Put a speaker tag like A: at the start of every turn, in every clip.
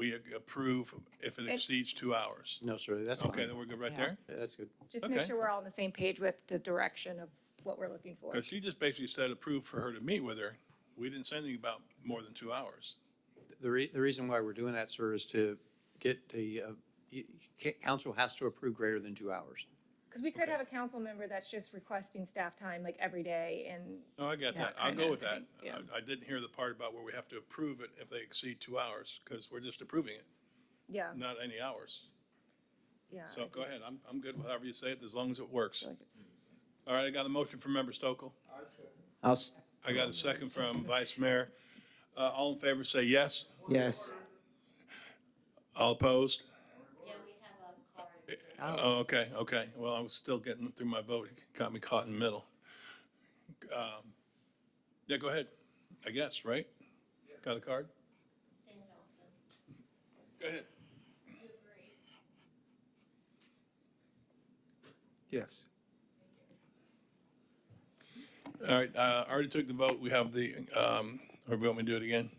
A: we ag- approve if it exceeds two hours.
B: No, sir, that's
A: Okay,
B: fine.
A: then we're good right
C: Yeah.
A: there?
B: Yeah, That's good.
C: Just make
A: Okay.
C: sure we're all on the same page with the direction of what we're looking for.
A: Because she just basically said approve for her to meet with her. We didn't say anything about more than two hours.
B: The re, the reason why we're doing that, sir, is to get the, uh, y- ca- council has to approve greater than two hours.
C: Because we could have a council member that's just requesting staff time like every day and,
A: No, I got
C: Yeah,
A: that. I'll
C: kinda,
A: go with that.
C: I think, yeah.
A: I- I didn't hear the part about where we have to approve it if they exceed two hours, because we're just approving it,
C: yeah,
A: not any hours.
C: yeah.
A: So go ahead, I'm, I'm good with however you say it, as long as it works.
C: like
A: All right, I got a motion from Member Stokel.
D: I'll, s-
A: I got a second from Vice Mayor. Uh, All in favor, say yes.
D: yes,
A: All opposed?
E: Yeah, we have a card.
A: Oh, okay, okay. Well, I was still getting through my vote. It Got me caught in the middle. Um, Yeah, go ahead, I guess, right? Got a card?
E: Stand also.
A: Go ahead.
E: You agree?
B: Yes.
A: All right, uh, I already took the vote. We have the, um, or we want me to do it again?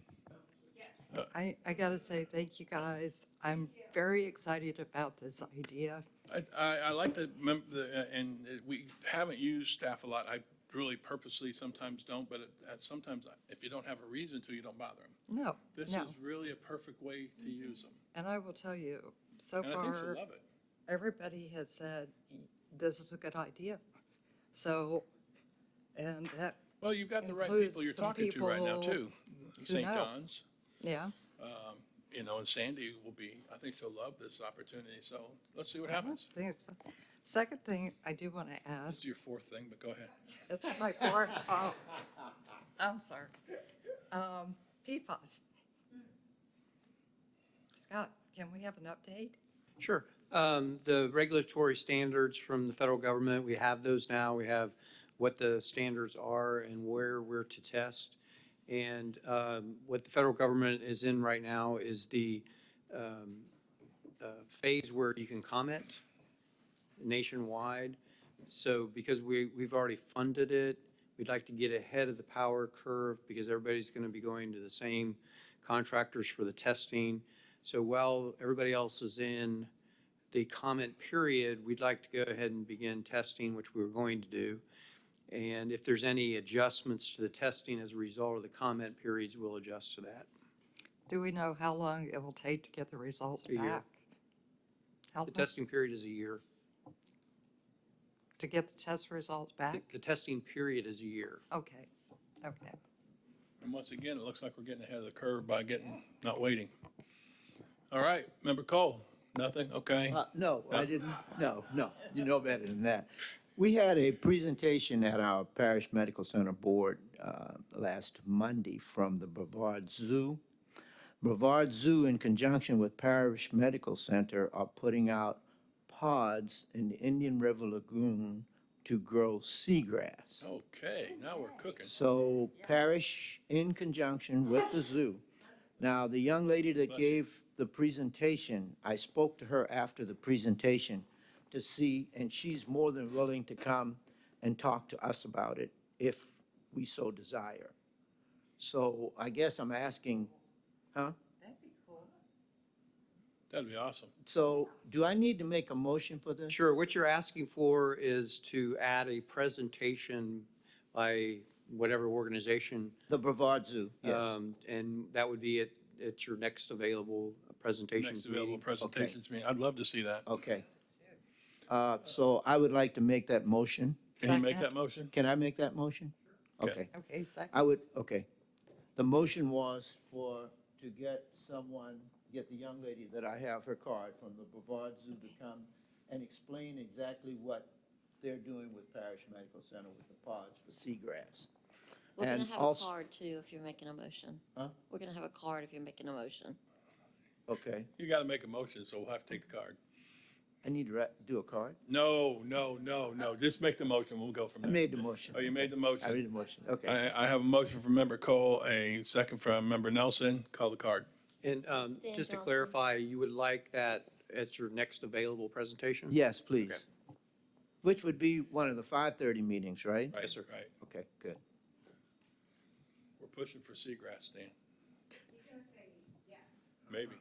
F: I, I gotta say, thank you guys. I'm very excited about this idea.
A: I, I, I like the, mem- the, uh, and it- we haven't used staff a lot. I really purposely sometimes don't, but it- uh, sometimes if you don't have a reason to, you don't bother them.
F: No,
A: This is
F: no.
A: really a perfect way to use them.
F: And I will tell you, so
A: And I think she'll
F: far,
A: love it.
F: everybody has said, this is a good idea. So, and that,
A: Well, you've got the right
F: Includes
A: people you're
F: some
A: talking to right now
F: people
A: too. St.
F: know.
A: John's,
F: yeah,
A: you know, and Sandy will be, I think she'll love this opportunity. So let's see what
F: I
A: happens.
F: think it's fun. Second thing I do want to
A: This
F: ask,
A: is your fourth thing, but go ahead.
F: is that my part? Oh, I'm sorry. Um, PFAS. Scott, can we have an update?
B: Sure. Um, The regulatory standards from the federal government, we have those now. We have what the standards are and where we're to test. And um, what the federal government is in right now is the um, uh, phase where you can comment nationwide. So because we, we've already funded it, we'd like to get ahead of the power curve because everybody's going to be going to the same contractors for the testing. So while everybody else is in the comment period, we'd like to go ahead and begin testing, which we were going to do. And if there's any adjustments to the testing as a result of the comment periods, we'll adjust to that.
F: Do we know how long it will take to get the results
B: year.
F: back? How
B: The
F: long
B: testing period is a year.
F: to get the test results
B: The-
F: back?
B: The testing period is a year.
F: Okay, okay.
A: And once again, it looks like we're getting ahead of the curve by getting, not waiting. All right, Member Cole, nothing? Okay.
D: Uh, no, I didn't, no, no, you know better than that. We had a presentation at our Parish Medical Center Board uh, last Monday from the Brevard Zoo. Brevard Zoo, in conjunction with Parish Medical Center, are putting out pods in the Indian River Lagoon to grow seagrass.
A: Okay, now we're cooking.
D: So parish in conjunction with the zoo. Now, the young lady that gave the presentation, I spoke to her after the presentation to see, and she's more than willing to come and talk to us about it if we so desire. So I guess I'm asking, huh?
A: That'd be awesome.
D: So do I need to make a motion for this?
B: Sure, what you're asking for is to add a presentation by whatever organization.
D: The Brevard Zoo, yes.
B: um, And that would be at, at your next available presentations
A: Next available
B: meeting.
A: presentations meeting. I'd love to see that.
D: Okay. Uh, So I would like to make that motion.
A: Can you make that
F: Second.
A: motion?
D: Can I make that motion?
A: Okay.
D: Okay.
F: Okay, second.
D: I would, okay. The motion was for, to get someone, get the young lady that I have her card from the Brevard Zoo to come and explain exactly what they're doing with Parish Medical Center with the pods for seagrass.
E: We're gonna
D: And
E: have a
D: also-
E: card too, if you're making a motion.
D: Huh?
E: We're gonna have a card if you're making a motion.
D: Okay,
A: You got to make a motion, so we'll have to take the card.
D: I need to ra- do a card?
A: No, no, no, no. Just make the motion. We'll go from
D: I
A: there.
D: made the motion.
A: Oh, you made the
D: I
A: motion.
D: made the motion, okay.
A: I, I have a motion from Member Cole, a second from Member Nelson. Call the card.
B: And um,
E: Stan
B: just to
E: Johnson.
B: clarify, you would like that at your next available presentation?
D: Yes, please. Which would be one of the 5:30 meetings, right?
A: Yes, sir. Right.
D: Okay, good.
A: We're pushing for seagrass, Dan. Maybe.